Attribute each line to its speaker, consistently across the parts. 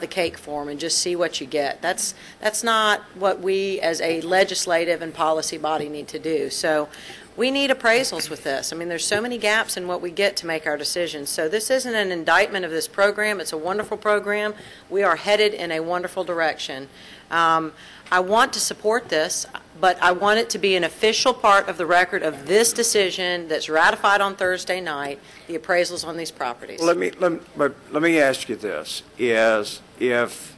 Speaker 1: the cake form and just see what you get. That's, that's not what we as a legislative and policy body need to do. So we need appraisals with this. I mean, there's so many gaps in what we get to make our decisions. So this isn't an indictment of this program. It's a wonderful program. We are headed in a wonderful direction. Um, I want to support this, but I want it to be an official part of the record of this decision that's ratified on Thursday night, the appraisals on these properties.
Speaker 2: Let me, let, me- but let me ask you this, is if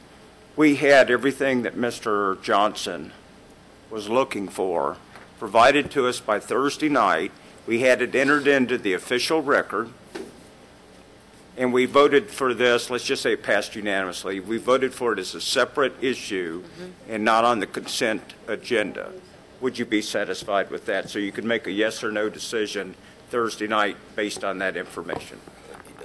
Speaker 2: we had everything that Mr. Johnson was looking for, provided to us by Thursday night, we had it entered into the official record, and we voted for this, let's just say it passed unanimously, we voted for it as a separate issue and not on the consent agenda, would you be satisfied with that? So you could make a yes or no decision Thursday night based on that information?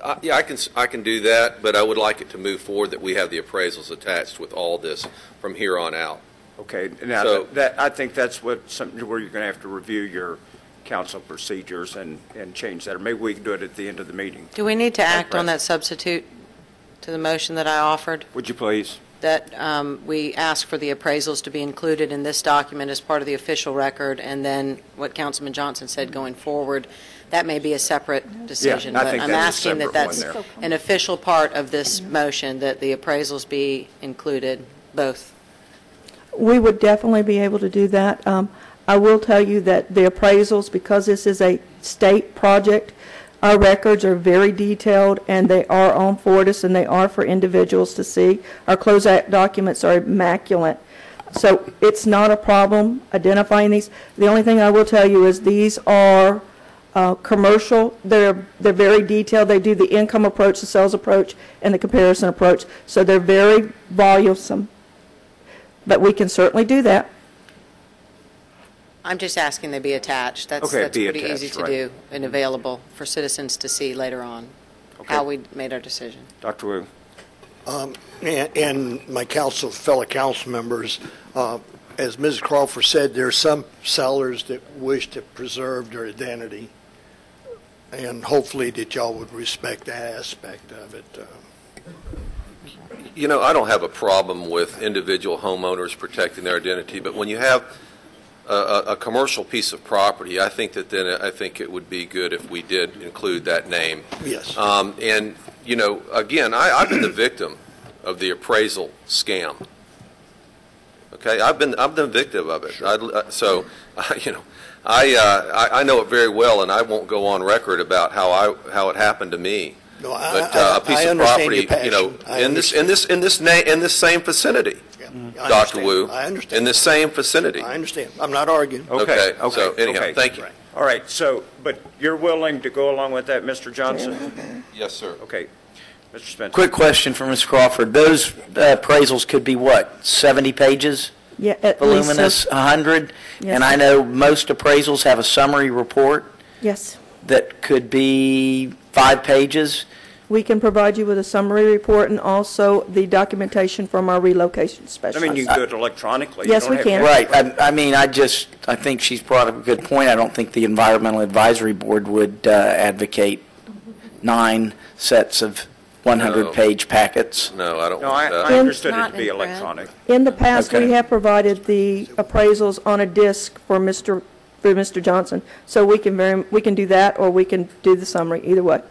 Speaker 3: I- Yeah, I can, s- I can do that, but I would like it to move forward that we have the appraisals attached with all this from here on out.
Speaker 2: Okay, now,
Speaker 3: So-
Speaker 2: that, I think that's what, something where you're going to have to review your council procedures and, and change that, or maybe we can do it at the end of the meeting.
Speaker 1: Do we need to act on
Speaker 2: Right.
Speaker 1: that substitute to the motion that I offered,
Speaker 2: Would you please?
Speaker 1: that um, we ask for the appraisals to be included in this document as part of the official record, and then what Councilman Johnson said going forward? That may be a separate decision.
Speaker 2: I think
Speaker 1: But I'm
Speaker 2: that is a
Speaker 1: asking that
Speaker 2: separate one
Speaker 1: that's
Speaker 2: there.
Speaker 1: an official part of this motion, that the appraisals be included, both.
Speaker 4: We would definitely be able to do that. Um, I will tell you that the appraisals, because this is a state project, our records are very detailed, and they are on Fortis, and they are for individuals to see. Our closeout documents are immaculate. So it's not a problem identifying these. The only thing I will tell you is these are uh, commercial, they're, they're very detailed, they do the income approach, the sales approach, and the comparison approach, so they're very voluminous. But we can certainly do that.
Speaker 1: I'm just asking they be attached. That's
Speaker 2: Okay,
Speaker 1: that's
Speaker 2: be
Speaker 1: pretty easy
Speaker 2: attached,
Speaker 1: to
Speaker 2: right.
Speaker 1: do and available for citizens to see later on, how we made our decision.
Speaker 2: Dr. Wu?
Speaker 5: and- and my council, fellow council members, uh, as Ms. Crawford said, there are some sellers that wish to preserve their identity, and hopefully that y'all would respect that aspect of it. uh,
Speaker 3: You know, I don't have a problem with individual homeowners protecting their identity, but when you have a, a, a commercial piece of property, I think that then, I think it would be good if we did include that name.
Speaker 5: Yes.
Speaker 3: Um, and, you know, again, I, I've been the victim of the appraisal scam. Okay, I've been, I've been victim of it. I'd- uh, So, I- you know, I, uh, I, I know it very well, and I won't go on record about how I, how it happened to me.
Speaker 5: No, I-
Speaker 3: But
Speaker 5: I-
Speaker 3: uh,
Speaker 5: I-
Speaker 3: a piece
Speaker 5: I
Speaker 3: of
Speaker 5: understand your
Speaker 3: property, you know,
Speaker 5: passion. I
Speaker 3: in this, in this, in this na, in this same vicinity,
Speaker 5: yeah, I
Speaker 3: Dr.
Speaker 5: understand.
Speaker 3: Wu.
Speaker 5: I
Speaker 3: In
Speaker 5: understand.
Speaker 3: the same vicinity.
Speaker 5: I understand. I'm not arguing.
Speaker 3: Okay,
Speaker 2: Okay,
Speaker 3: so
Speaker 2: okay,
Speaker 3: anyhow,
Speaker 2: okay.
Speaker 3: thank you.
Speaker 5: Right.
Speaker 2: All right, so, but you're willing to go along with that, Mr. Johnson?
Speaker 3: Yes, sir.
Speaker 2: Okay, Mr. Spencer?
Speaker 6: Quick question for Ms. Crawford. Those uh, appraisals could be what, 70 pages?
Speaker 4: Yeah, at least. so.
Speaker 6: Voluminous, 100?
Speaker 4: Yes.
Speaker 6: And I know most appraisals have a summary report
Speaker 4: Yes.
Speaker 6: that could be five pages.
Speaker 4: We can provide you with a summary report and also the documentation from our relocation
Speaker 2: I
Speaker 4: specialist.
Speaker 2: mean, you can do it electronically. You
Speaker 4: Yes,
Speaker 2: don't
Speaker 4: we
Speaker 2: have-
Speaker 4: can.
Speaker 6: Right, I, I mean, I just, I think she's brought up a good point. I don't think the Environmental Advisory Board would uh, advocate nine sets of
Speaker 3: No.
Speaker 6: 100-page packets.
Speaker 3: No, I don't
Speaker 2: No, I,
Speaker 3: want
Speaker 2: I
Speaker 3: that.
Speaker 2: understood it
Speaker 1: Not
Speaker 2: to be
Speaker 1: in print.
Speaker 2: electronic.
Speaker 4: In the past, we
Speaker 6: Okay.
Speaker 4: have provided the appraisals on a disc for Mr., for Mr. Johnson. So we can very, we can do that, or we can do the summary, either way.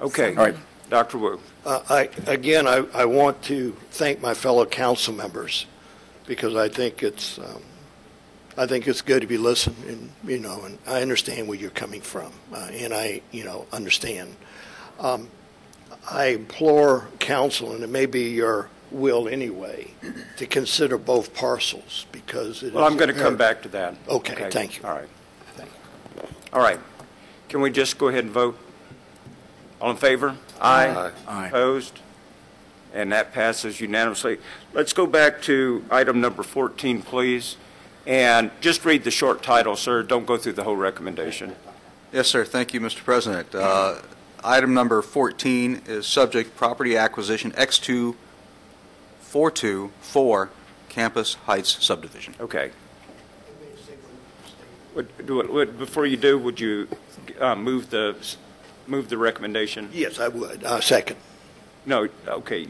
Speaker 2: Okay.
Speaker 6: All right.
Speaker 2: Dr. Wu?
Speaker 5: Uh, I, again, I, I want to thank my fellow council members because I think it's, um, I think it's good to be listened and, you know, and I understand where you're coming from. Uh, and I, you know, understand. Um, I implore council, and it may be your will anyway, to consider both parcels because it is.
Speaker 2: Well, I'm going to come back to that.
Speaker 5: Okay, thank you.
Speaker 2: All right. All right. Can we just go ahead and vote? All in favor? Aye.
Speaker 6: Aye.
Speaker 2: Opposed? And that passes unanimously. Let's go back to item number 14, please, and just read the short title, sir. Don't go through the whole recommendation.
Speaker 7: Yes, sir. Thank you, Mr. President. Uh, Item number 14 is subject property acquisition X2424 Campus Heights subdivision.
Speaker 2: Okay. Would- do it- would- Before you do, would you uh, move the, move the recommendation?
Speaker 5: Yes, I would. Uh, second.
Speaker 2: no, okay,